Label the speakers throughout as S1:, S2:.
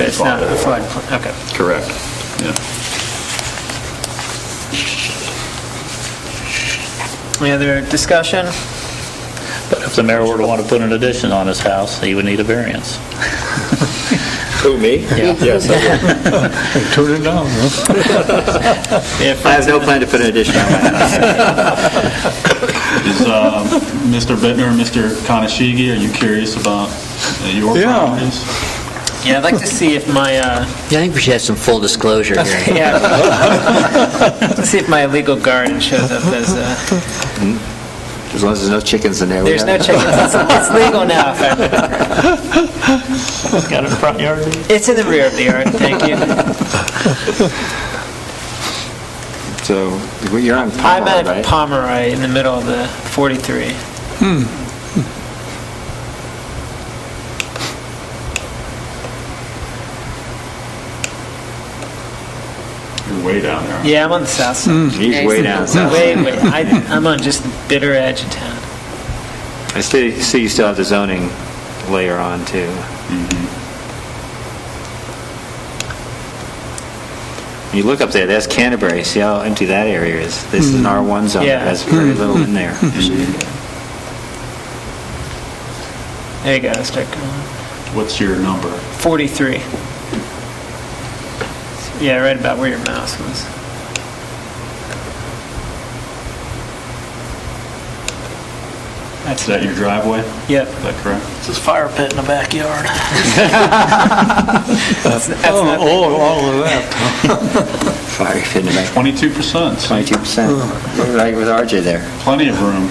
S1: It's not a floodplain, okay.
S2: Correct, yeah.
S1: Any other discussion?
S3: But if the mayor were to want to put an addition on his house, he would need a variance.
S2: Who, me? Yes. I would.
S4: Turn it down, huh?
S1: If
S2: I have no plan to put an addition on my house.
S5: Is uh, Mr. Bittner, Mr. Kanashigi, are you curious about uh, your
S4: Yeah.
S5: properties?
S1: Yeah, I'd like to see if my, uh,
S6: Yeah, I think we should have some full disclosure here.
S1: yeah, let's see if my legal garden shows up as, uh,
S2: As long as there's no chickens in there. we
S1: there's
S2: have
S1: no
S2: it.
S1: chickens, it's it's legal now.
S3: Got it in the front yard?
S1: It's in the rear of the yard, thank you.
S2: So, well, you're on
S1: I'm
S2: Pomeroy,
S1: at
S2: right?
S1: Pomeroy in the middle of the 43.
S5: You're way down there.
S1: Yeah, I'm on the south side.
S2: He's Hmm. way down south.
S1: Wait, wait, I, I'm on just the bitter edge of town.
S2: I see see you still have the zoning layer on, too.
S4: Mm-hmm.
S2: You look up there, that's Canterbury, see how empty that area is? This is an
S4: Mm-hmm.
S2: R1 zone,
S1: Yeah.
S2: that's very little in there.
S1: There you go, I'll start going.
S5: What's your number?
S1: 43. Yeah, right about where your mouse was.
S5: Is that your driveway? Is
S1: Yep,
S5: that correct?
S1: that's, that's not-
S4: Oh, all of that.
S2: Fire pit in the back,
S5: 22%, so
S2: 22%. Right with RJ there.
S5: plenty of room.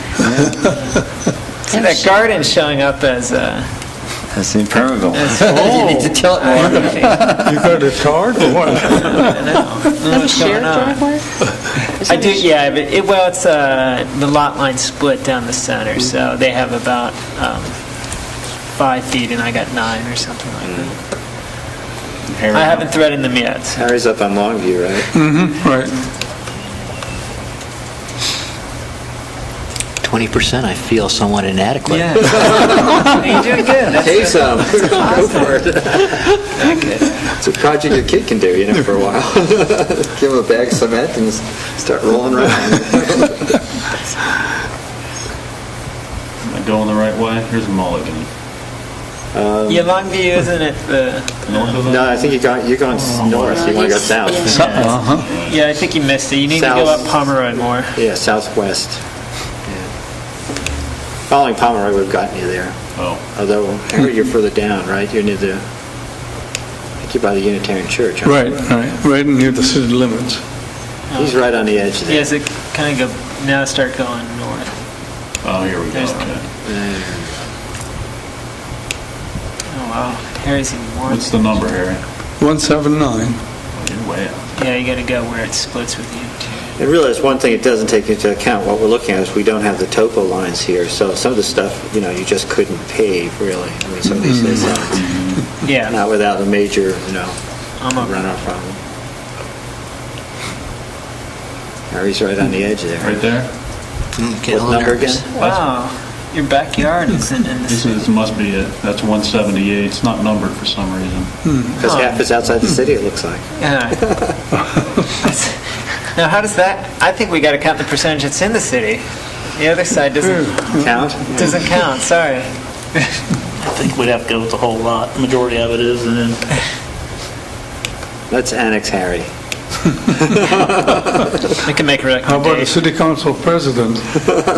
S1: see that garden showing up as, uh,
S2: That's impermeable.
S6: You need to tell
S1: Oh,
S6: it
S2: Oh.
S6: more.
S4: You got a card or what?
S1: Have a shared driveway? I do, yeah, but it, well, it's, uh, the lot line split down the center, so they have about, um, five feet and I got nine or something like that.
S5: Harry,
S1: I haven't threaded them yet, so.
S2: Harry's up on Longview, right?
S4: Right.
S6: 20%, I feel somewhat inadequate.
S1: Yeah. Oh, You're doing good. That's
S2: Hey, some, go for it. It's a project your kid can do, you know, for a while. Give him a bag of cement and s- start rolling around.
S5: Am I going the right way? Here's Mulligan.
S1: Yeah, Longview, isn't it the,
S5: North of
S2: No,
S5: that?
S2: I think you're going, you're going s-
S1: Oh,
S2: north, you want to go south.
S4: Uh-huh.
S1: yeah, I think you missed it. You need to go
S2: South.
S1: up Pomeroy more.
S2: Yeah, southwest. Yeah. Following Pomeroy would have gotten you there,
S5: Oh,
S2: although, Harry, you're further down, right? You're near the, I think you're by the Unitarian Church. aren't
S4: Right,
S2: you?
S4: right, right near the city limits.
S2: He's right on the edge there.
S1: Yeah, so kind of go, now start going north.
S5: oh, here we go,
S1: There's-
S5: okay.
S1: Oh, wow. Harry's even more.
S5: What's the number, Harry?
S4: 179.
S5: Oh, You're way out.
S1: Yeah, you gotta go where it splits with you too.
S2: And realize one thing it doesn't take into account, what we're looking at is we don't have the topo lines here, so some of the stuff, you know, you just couldn't pave, really. I mean, some of these things, uh,
S1: Yeah,
S2: not without a major, you know,
S1: I'm over.
S2: runoff problem. Harry's right on the edge there.
S5: Right there?
S6: Mm, Get a
S2: What
S6: little
S2: number
S6: nervous.
S2: again?
S1: Wow, your backyard is in, in
S5: This
S1: this.
S5: is, must be it. That's 178. It's not numbered for some reason.
S2: Because half is outside the city, it looks like.
S1: Yeah. Now, how does that, I think we gotta count the percentage that's in the city. The other side doesn't,
S2: Count?
S1: doesn't count, sorry.
S3: I think we'd have to go with the whole lot, majority of it is, and then
S2: Let's annex Harry.
S1: We can make a
S4: How about the
S1: recommendation.
S4: city council president?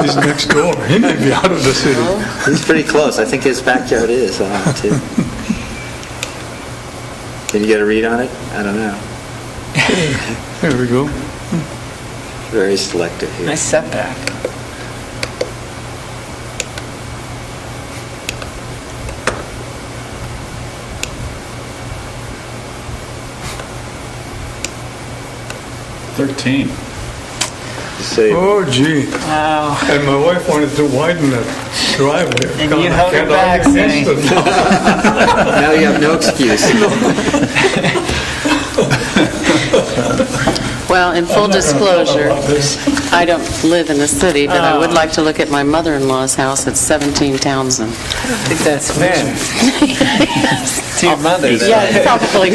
S4: He's next door. He may be out of the city.
S2: He's pretty close. I think his backyard is, uh, too. Did you get a read on it? I don't know.
S4: There we go.
S2: Very selective here.
S1: Nice setback.
S5: Thirteen.
S2: Say-
S4: Oh gee.
S1: Wow.
S4: And my wife wanted to widen that driveway.
S1: And
S4: God,
S1: you
S4: I
S1: held her
S4: can't
S1: back,
S4: argue
S1: saying-
S4: against it.
S2: Now you have no excuse.
S7: Well, in full disclosure, I don't live in the city, but I would
S1: Oh.
S7: like to look at my mother-in-law's house at 17 Townsend.
S1: I think that's fair. To your mother, though.
S7: Probably